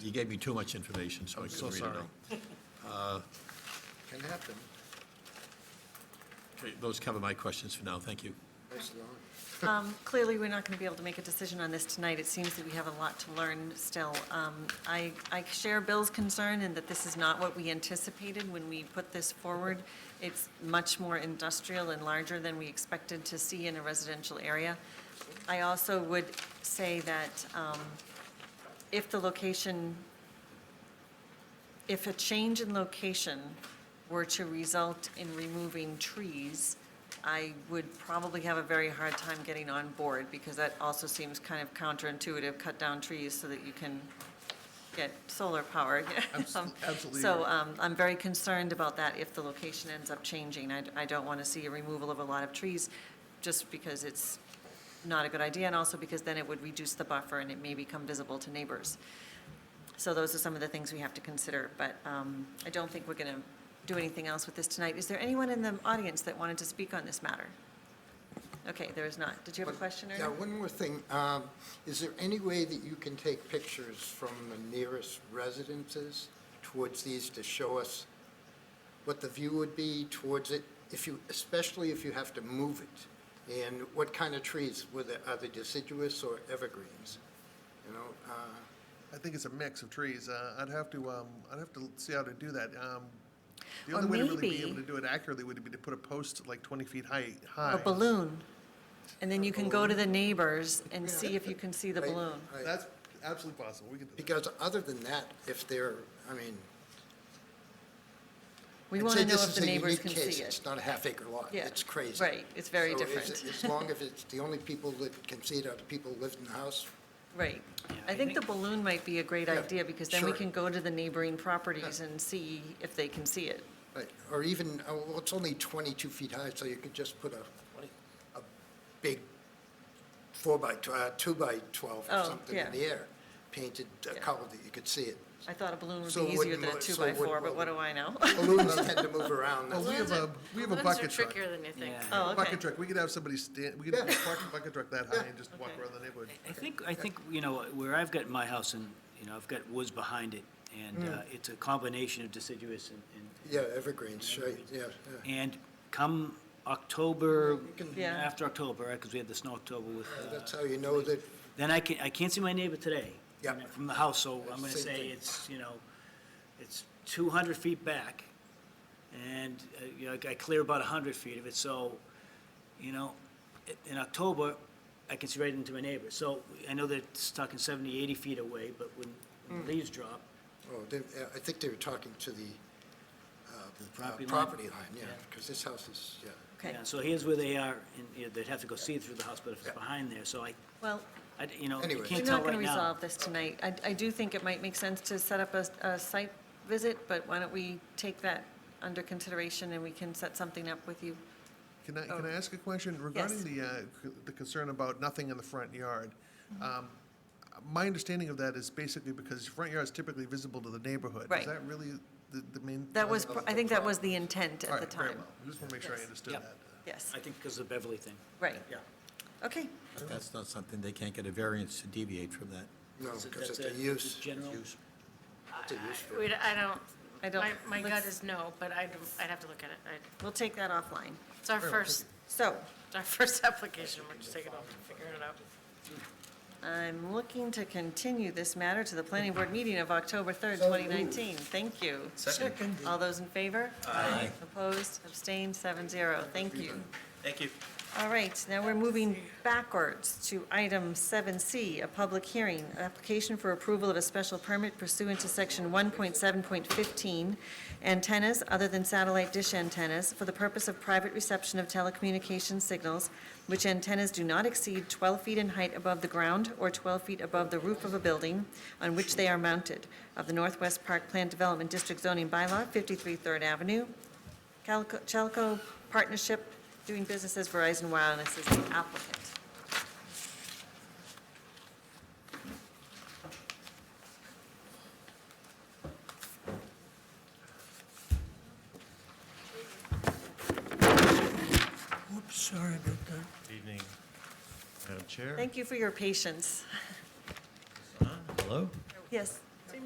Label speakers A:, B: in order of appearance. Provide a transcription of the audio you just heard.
A: you gave me too much information, so I
B: I'm
A: couldn't
B: so
A: read it
B: sorry.
A: all.
B: Can happen,
A: Okay, Those cover my questions for now, thank you.
B: nice lawn.
C: Um, Clearly, we're not going to be able to make a decision on this tonight. It seems that we have a lot to learn still. Um, I, I share Bill's concern in that this is not what we anticipated when we put this forward. It's much more industrial and larger than we expected to see in a residential area. I also would say that um, if the location, if a change in location were to result in removing trees, I would probably have a very hard time getting on board, because that also seems kind of counterintuitive, cut down trees so that you can get solar power.
B: Abs- absolutely
C: So
B: right.
C: um, I'm very concerned about that if the location ends up changing. I I don't want to see a removal of a lot of trees, just because it's not a good idea, and also because then it would reduce the buffer and it may become visible to neighbors. So those are some of the things we have to consider, but um, I don't think we're going to do anything else with this tonight. Is there anyone in the audience that wanted to speak on this matter? Okay, there is not. Did you have a question,
B: Yeah,
C: Ernie?
B: one more thing. Um, Is there any way that you can take pictures from the nearest residences towards these to show us what the view would be towards it, if you, especially if you have to move it? And what kind of trees, were there, are they deciduous or evergreens? You know, uh,
D: I think it's a mix of trees. Uh, I'd have to, um, I'd have to see how to do that. Um, the
C: Or
D: only way to really be
C: maybe-
D: able to do it accurately would be to put a post like twenty feet high, high.
C: A balloon. And then you can go to the neighbors and see if you can see the
B: right?
C: balloon.
B: Right.
D: That's absolutely possible. We can do that.
B: Because other than that, if they're, I mean,
C: We
B: I'd
C: want
B: say
C: to know
B: this
C: if
B: is
C: the
B: a
C: neighbors
B: unique
C: can
B: case.
C: see it.
B: It's not a half acre lot.
C: Yeah,
B: It's crazy.
C: right. It's very
B: So
C: different.
B: as- As long as it's, the only people that can see it are the people who live in the house,
C: Right. I think the balloon might be a great
B: Yeah,
C: idea, because then we
B: sure.
C: can go to the neighboring properties and see if they can see it.
B: right, or even, uh, well, it's only 22 feet high, so you could just put a, a big four by, tw- uh, two by 12 or
C: Oh,
B: something
C: yeah.
B: in the air, painted a
C: Yeah.
B: color that you could see it.
C: I thought a balloon would
B: So
C: be
B: it
C: easier
B: wouldn't
C: than a
B: mo- so it
C: two-by-four,
B: wouldn't
C: but what do
B: move.
C: I know?
B: Balloons tend to move around.
D: Well, we
B: that's-
D: have a, we have a bucket truck.
E: trickier than you think.
C: Oh, okay.
D: Bucket truck. We could have somebody stand, we could have a parking bucket truck that high and just walk
C: Okay.
D: around the neighborhood.
F: I think, I think, you know, where I've got my house and, you know, I've got woods behind it, and uh, it's a combination of deciduous and, and-
B: Yeah, evergreens, right, yeah, yeah.
F: and come October,
C: Yeah.
F: after October, because we had the snow October with, uh,
B: That's how you know that,
F: then I can, I can't see my neighbor today.
B: Yeah.
F: From the house, so I'm gonna
B: Same
F: say
B: thing.
F: it's, you know, it's two hundred feet back, and, uh, you know, I clear about hundred feet of it, so, you know, i- in October, I can see right into my neighbor, so I know that it's talking 70, 80 feet away, but when when
C: Mm.
F: the leaves drop,
B: oh, they- uh, I think they were talking to the
F: the
B: uh,
F: property line.
B: property line, yeah,
F: Yeah.
B: because this house is, yeah.
C: Okay,
F: Yeah, so here's where they are, and, you know, they'd have to go see through the house, but if it's behind there, so I,
C: well,
F: I, you know, I
B: Anyway.
C: we're
F: can't tell
C: not going
F: right
C: to
F: now.
C: resolve this tonight. I, I do think it might make sense to set up a, a site visit, but why don't we take that under consideration and we can set something up with you?
D: Can I,
C: Oh.
D: can I ask a question regarding the, uh, c- the concern about nothing in the front yard?
C: Mm-hmm.
D: Um, My understanding of that is basically because front yard is typically visible to the neighborhood.
C: Right.
D: Is that really the, the main?
C: That was, pr- I think that was the intent
D: All
C: at the
D: right, very
C: time.
D: well. I Just want to make sure I
C: Yes.
D: understood
F: Yep.
D: that.
C: Yes,
F: I think because of the Beverly thing.
C: right.
F: Yeah.
C: Okay,
A: But that's not something, they can't get a variance to deviate from that.
B: No,
F: So
B: because
F: that's
B: it's a
F: a-
B: use.
F: general-
B: use. It's a use for
E: We, I don't,
C: I
E: my,
C: don't-
E: my gut
C: let's-
E: is no, but I'd, I'd have to look at it. I-
C: we'll take that offline.
E: It's our first,
C: So,
E: it's our first application, we're just taking off and figuring it out.
C: I'm looking to continue this matter to the planning board meeting of October 3rd, 2019. Thank you. Second. All those in favor? Aye. Opposed, abstained, seven zero. Thank you.
G: Thank you.
C: All right, now we're moving backwards to item 7C, a public hearing, application for approval of a special permit pursuant to section 1.7.15, antennas other than satellite dish antennas for the purpose of private reception of telecommunications signals, which antennas do not exceed 12 feet in height above the ground or 12 feet above the roof of a building on which they are mounted, of the Northwest Park Plan Development District zoning bylaw, 53 Third Avenue, Calico- Chalco Partnership, doing business as Verizon Wireless is the applicant.
G: Oops, sorry about that. Evening, Madam Chair.
C: Thank you for your patience.
G: Hello?
C: Yes,